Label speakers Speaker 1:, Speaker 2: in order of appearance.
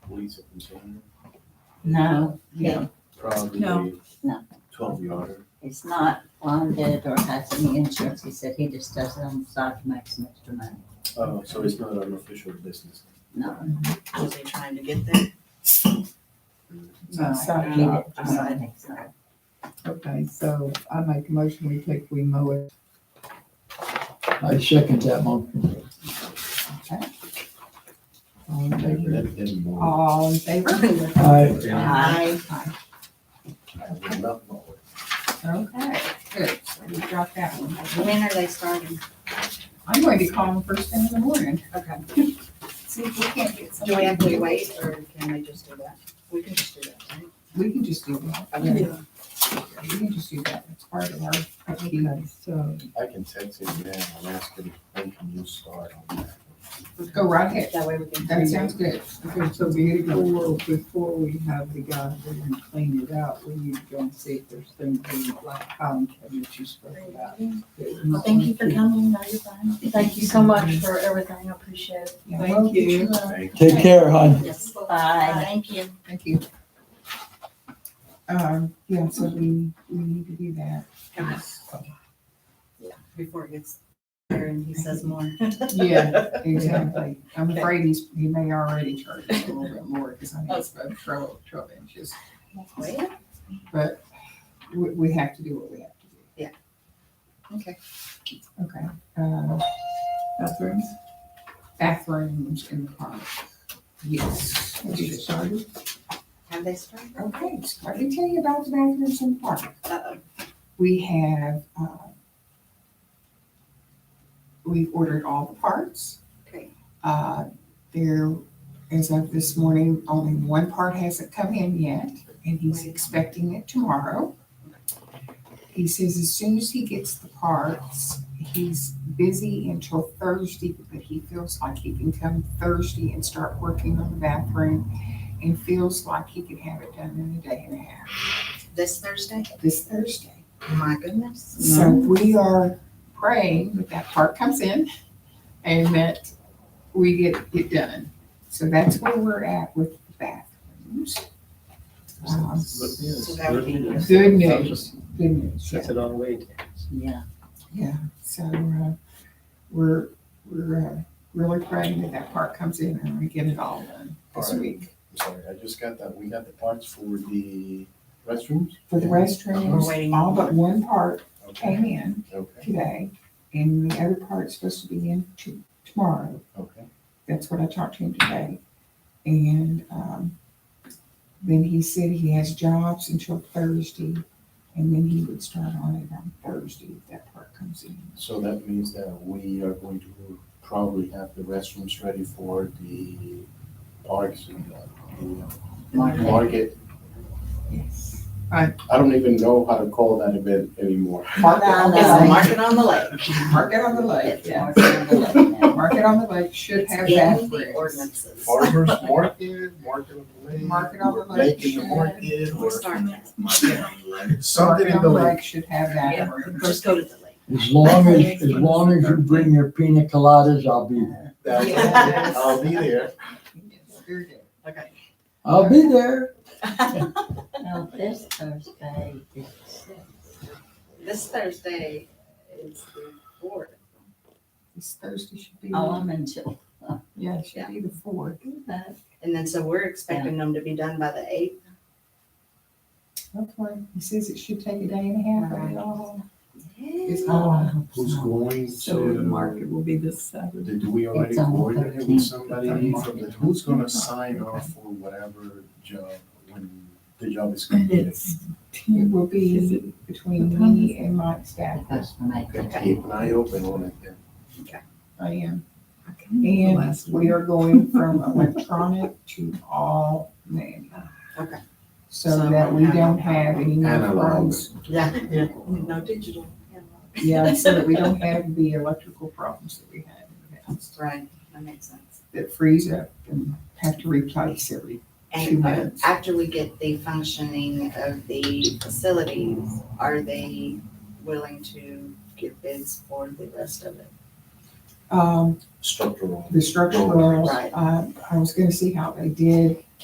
Speaker 1: police a container?
Speaker 2: No, no,
Speaker 1: Probably
Speaker 3: No.
Speaker 2: No.
Speaker 1: twelve yarder.
Speaker 2: it's not bonded or has any insurance. He said he just does it on the side to make some extra money.
Speaker 1: Oh, so it's not an official business.
Speaker 2: No.
Speaker 4: Was he trying to get that?
Speaker 3: No.
Speaker 2: So he did- I don't think so.
Speaker 3: Okay, so I make a motion, we take, we mow it.
Speaker 5: I second that motion.
Speaker 3: All in favor?
Speaker 1: That didn't work.
Speaker 3: All in favor?
Speaker 5: I,
Speaker 2: Aye.
Speaker 1: I love my work.
Speaker 3: Okay, good, so we got that one.
Speaker 4: When are they starting?
Speaker 3: I'm going to call them first thing in the morning.
Speaker 4: Okay.
Speaker 3: See if we can't get
Speaker 4: Do we
Speaker 3: somebody.
Speaker 4: have to wait or can we just do that? We can just do that, right?
Speaker 3: We can just do that.
Speaker 4: Okay.
Speaker 3: We can just do that. It's part of our, okay, so
Speaker 1: I can text him now and ask him, when can you start on that?
Speaker 3: go right ahead.
Speaker 4: That way we can.
Speaker 3: That sounds good. Okay, so before, before we have the guy go and clean it out, we need to go and see if there's things in like column cabinets you spoke about.
Speaker 4: Well, thank you for coming, now you're fine.
Speaker 6: Thank you so much for everything, I appreciate it.
Speaker 3: Thank you.
Speaker 1: Thank
Speaker 5: take care, hon.
Speaker 2: Yes, bye.
Speaker 4: Thank you.
Speaker 3: Thank you. Um, yeah, so we, we need to do that.
Speaker 4: Before it gets there and he says more.
Speaker 3: Yeah, exactly. I'm afraid he's, he may already charge us a little bit more because I think it's about twelve, twelve inches.
Speaker 4: Well,
Speaker 3: But we, we have to do what we have to do.
Speaker 4: Yeah. Okay.
Speaker 3: Okay, um, bathrooms? Bathrooms in the park. Yes. Have you started?
Speaker 4: Have they started?
Speaker 3: Okay, so let me tell you about the bathrooms in the park.
Speaker 4: Uh-oh.
Speaker 3: We have, uh, we've ordered all the parts.
Speaker 4: Okay.
Speaker 3: Uh, there, as of this morning, only one part hasn't come in yet, and he's expecting it tomorrow. He says as soon as he gets the parts, he's busy until Thursday, but he feels like he can come Thursday and start working on the bathroom and feels like he can have it done in a day and a half,
Speaker 4: This Thursday?
Speaker 3: this Thursday.
Speaker 4: My goodness.
Speaker 3: So we are praying that that part comes in and that we get it done. So that's where we're at with the bathrooms. Um,
Speaker 1: Good news.
Speaker 4: So that would be-
Speaker 1: Good news.
Speaker 3: Good news, good news, yeah.
Speaker 1: That's it on the way.
Speaker 2: Yeah,
Speaker 3: So, uh, we're, we're, uh, really praying that that part comes in and we get it all done this
Speaker 1: All right.
Speaker 3: week.
Speaker 1: I'm sorry, I just got that. We got the parts for the restrooms?
Speaker 3: For the
Speaker 4: We're
Speaker 3: restrooms,
Speaker 4: waiting.
Speaker 3: all but one part
Speaker 1: Okay,
Speaker 3: came in
Speaker 1: okay,
Speaker 3: today and the other part's supposed to be in to, tomorrow.
Speaker 1: okay.
Speaker 3: That's what I talked to him today. And um, then he said he has jobs until Thursday, and then he would start on it on Thursday if that part comes in.
Speaker 1: So that means that we are going to probably have the restrooms ready for the parks and uh, the uh, market.
Speaker 3: Yes.
Speaker 1: I don't even know how to call that event anymore.
Speaker 3: Mark it on
Speaker 4: It's
Speaker 2: No.
Speaker 4: a
Speaker 3: the lake.
Speaker 4: market on the lake.
Speaker 3: Mark it on the lake,
Speaker 2: it's
Speaker 3: yeah.
Speaker 2: more than the lake now.
Speaker 3: Mark it on the lake should
Speaker 4: It's
Speaker 3: have
Speaker 4: in the
Speaker 3: bathrooms.
Speaker 4: ordinances.
Speaker 1: Farmers market, market on the lake.
Speaker 3: Market on the
Speaker 1: or
Speaker 3: lake.
Speaker 1: in the market
Speaker 4: We're
Speaker 1: or
Speaker 4: starting that.
Speaker 1: market on the lake.
Speaker 3: Mark
Speaker 1: Something
Speaker 3: it
Speaker 1: in
Speaker 3: on
Speaker 1: the
Speaker 3: the
Speaker 1: lake.
Speaker 3: lake should have
Speaker 4: Yeah.
Speaker 3: bathrooms.
Speaker 4: Just go to the lake.
Speaker 5: As long as, as long as you bring your pina coladas, I'll be there.
Speaker 1: That's-
Speaker 3: Yes.
Speaker 1: I'll be there.
Speaker 3: Yes, very good.
Speaker 4: Okay.
Speaker 5: I'll be there.
Speaker 2: No, this Thursday is
Speaker 4: This Thursday is the fourth.
Speaker 3: This Thursday should be,
Speaker 2: Oh, I'm in Chil-
Speaker 3: yeah, it should be the fourth.
Speaker 4: And then so we're expecting them to be done by the eighth.
Speaker 3: Okay. He says it should take a day and a half, but it all, it's all.
Speaker 2: Oh,
Speaker 1: Who's going
Speaker 7: So the
Speaker 1: to?
Speaker 7: market will be this Saturday.
Speaker 1: Did we already
Speaker 2: It's on the
Speaker 1: coordinate with
Speaker 2: 13th.
Speaker 1: somebody
Speaker 3: It's on
Speaker 1: from
Speaker 3: the
Speaker 1: the, who's gonna sign off for whatever job, when the job is completed?
Speaker 7: It's
Speaker 3: It will
Speaker 7: Is
Speaker 3: be between me and Mike staff.
Speaker 2: That's my
Speaker 1: Okay, Keep an eye open on it then.
Speaker 3: I am.
Speaker 7: okay, the
Speaker 3: And
Speaker 7: last
Speaker 3: we
Speaker 7: one.
Speaker 3: are going from electronic to all manual.
Speaker 4: Okay.
Speaker 3: So that we don't have any more
Speaker 1: Analog.
Speaker 3: problems.
Speaker 4: Yeah, no digital.
Speaker 3: Yeah, so that we don't have the electrical problems that we had in the past
Speaker 4: Right, that makes sense.
Speaker 3: that freeze up and have to replace every. Two
Speaker 4: And uh,
Speaker 3: minutes.
Speaker 4: after we get the functioning of the facilities, are they willing to give bids for the rest of it?
Speaker 3: Um,
Speaker 1: Structural.
Speaker 3: the structural,
Speaker 4: Right.
Speaker 3: uh, I was gonna see how they did.